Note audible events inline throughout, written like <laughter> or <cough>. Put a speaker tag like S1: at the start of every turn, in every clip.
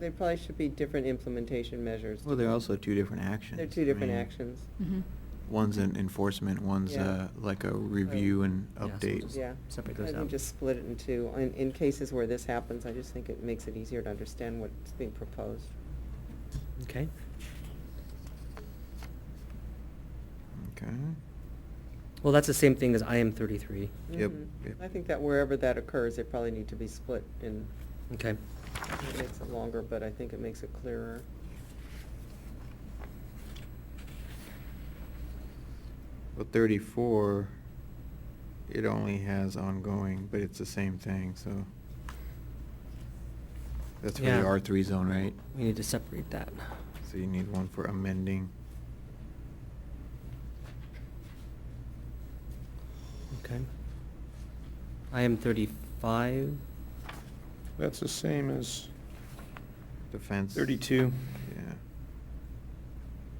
S1: they probably should be different implementation measures.
S2: Well, they're also two different actions.
S1: They're two different
S2: I mean,
S1: actions,
S3: Mm-hmm.
S4: Mhm.
S2: One's an enforcement, one's
S1: Yeah.
S2: uh, like a review and
S5: Yeah, so we'll
S2: update.
S5: just
S1: yeah.
S5: Separate
S1: I
S5: those
S1: think
S5: out.
S1: just split it in two. In, in cases where this happens, I just think it makes it easier to understand what's being proposed.
S5: Okay.
S2: Okay.
S5: Well, that's the same thing as IM thirty-three.
S2: Yep,
S1: Mhm.
S2: yep.
S1: I think that wherever that occurs, they probably need to be split in,
S5: Okay.
S1: it makes it longer, but I think it makes it clearer.
S2: Well, thirty-four, it only has ongoing, but it's the same thing, so. That's for
S5: Yeah.
S2: the R three zone, right?
S5: We need to separate that.
S2: So you need one for amending.
S5: Okay. IM thirty-five,
S6: That's the same as
S2: Defense.
S6: 32,
S2: Yeah.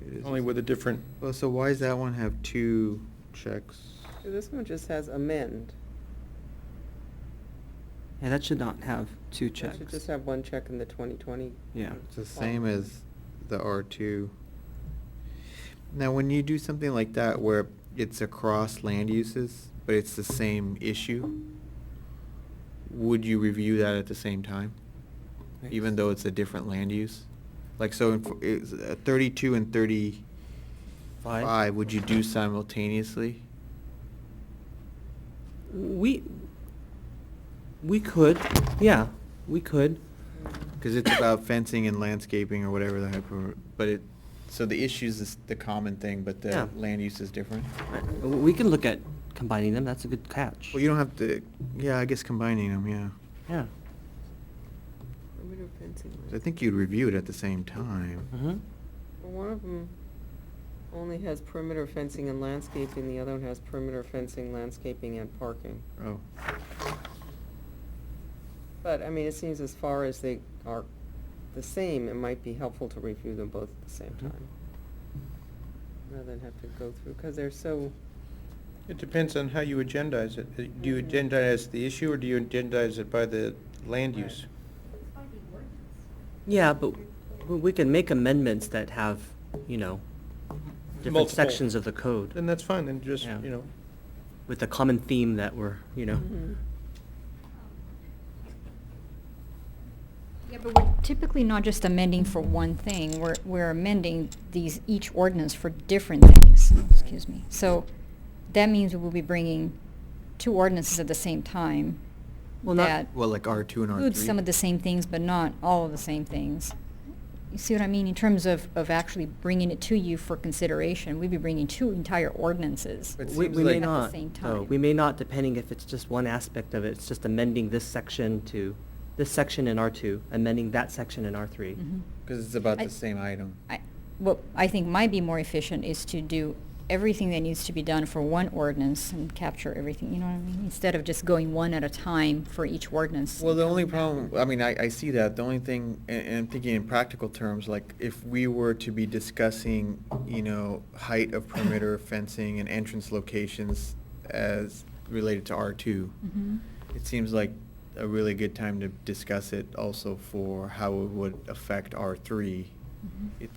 S2: It is
S6: only
S2: the
S6: with a
S2: same.
S6: different,
S2: Well, so why does that one have two checks?
S1: This one just has amend.
S7: Yeah, that should not have two
S1: It
S7: checks.
S1: should just have one check in the twenty twenty.
S7: Yeah.
S2: It's the same as the R two. Now, when you do something like that where it's across land uses, but it's the same issue, would you review that at the same time? Even though it's a different land use? Like, so in, is uh, thirty-two and thirty-five,
S5: five.
S2: would you do simultaneously?
S5: We, we could, yeah, we could.
S2: Cause it's about fencing and landscaping or whatever the hyper, but it, so the issues is the common thing, but
S5: Yeah.
S2: the land use is different?
S5: Right, w- We can look at combining them, that's a good catch.
S2: Well, you don't have to, yeah, I guess combining them, yeah.
S5: Yeah.
S2: I think you'd review it at the same time.
S5: Mm-hmm.
S1: Well, One of them only has perimeter fencing and landscaping, the other one has perimeter fencing, landscaping, and parking.
S2: Oh,
S1: But, I mean, it seems as far as they are the same, it might be helpful to review them both at the same
S5: Mhm.
S2: Mm-hmm.
S1: time. Rather than have to go through, because they're so,
S6: it depends on how you agendize it. Uh, Do you
S1: Mhm.
S6: agendize the issue, or do you agendize it by the land
S1: Right.
S6: use?
S5: Yeah, but w- we can make amendments that have, you know, different
S6: Multiple.
S5: sections of the
S6: Then
S5: code
S6: that's fine, then just,
S5: Yeah.
S6: you know,
S5: with a common theme that we're, you know.
S1: Mhm.
S3: Yeah, but we're typically not just amending for one thing, we're, we're amending these, each ordinance for different things,
S5: Mm-hmm.
S3: excuse me. So that means we will be bringing two ordinances at the same time.
S5: Well, not-
S3: that
S2: well, like R two and R three.
S3: Includes some of the same things, but not all of the same things. You see what I mean, in terms of, of actually bringing it to you for consideration, we'd be bringing two entire ordinances.
S6: It
S5: We,
S6: seems
S5: we may
S6: like- At the
S5: not,
S3: same
S5: though,
S3: time.
S5: we may not, depending if it's just one aspect of it, it's just amending this section to, this section in R two, amending that section in R three.
S3: Mhm.
S2: Cause it's about
S3: I-
S2: the same item.
S3: I, what I think might be more efficient is to do everything that needs to be done for one ordinance and capture everything, you know what I mean? Instead of just going one at a time for each ordinance.
S2: Well, the only problem, I mean, I, I see that, the only thing, and, and I'm thinking in practical terms, like, if we were to be discussing, you know, height of
S3: <laughs>
S2: perimeter fencing and entrance locations as related to R two,
S3: Mhm.
S2: it seems like a really good time to discuss it also for how it would affect R three.
S3: Mhm.
S2: It-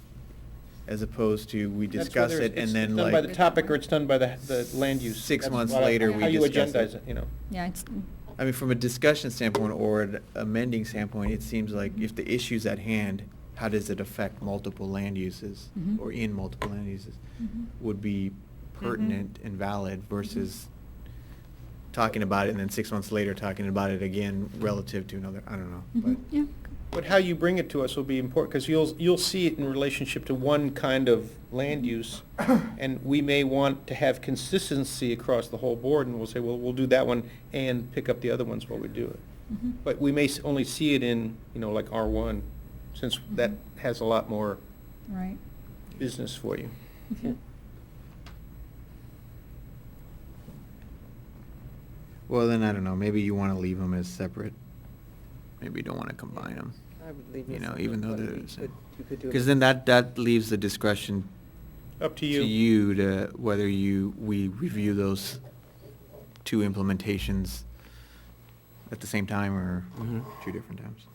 S2: As opposed to we
S6: That's
S2: discuss
S6: whether
S2: it
S6: it's
S2: and then
S6: Done by the
S2: like,
S6: topic, or it's done by the, the land use.
S2: Six
S6: That's
S2: months
S6: what I-
S3: later, we
S6: How you
S3: discuss
S2: it.
S6: agendize it, you know.
S3: Yeah, it's, mm-hmm.
S2: I mean, from a discussion standpoint or an amending standpoint, it seems like if the issue's at hand, how does it affect multiple land uses
S6: Mm-hmm.
S3: Mhm.
S2: or in multiple land uses
S3: Mhm.
S2: would be pertinent and valid versus talking about it and then six months later talking about it again relative to another, I don't know,
S6: Mm-hmm.
S3: mhm,
S2: but.
S3: yeah.
S6: But how you bring it to us will be important, because you'll, you'll see it in relationship to one kind of land <coughs> use, and we may want to have consistency across the whole board, and we'll say, well, we'll do that one and pick up the other ones while we do it.
S3: mhm.
S6: But we may s- only see it in, you know, like R1, since that has a lot more
S3: Right.
S6: business for you.
S3: Mhm.
S2: Well, then, I don't know, maybe you wanna leave them as separate. Maybe you don't wanna combine them.
S1: I would leave.
S2: You
S1: this
S2: know,
S1: as
S2: even
S1: a-
S2: though
S1: but
S2: they're
S1: you
S2: the
S1: could-
S2: same.
S1: You could do.
S2: Because then that, that leaves the discretion
S6: Up to
S2: to
S6: you.
S2: you to, whether you, we review those two implementations at the same time or
S5: Mhm.
S6: Mm-hmm.
S2: two different times.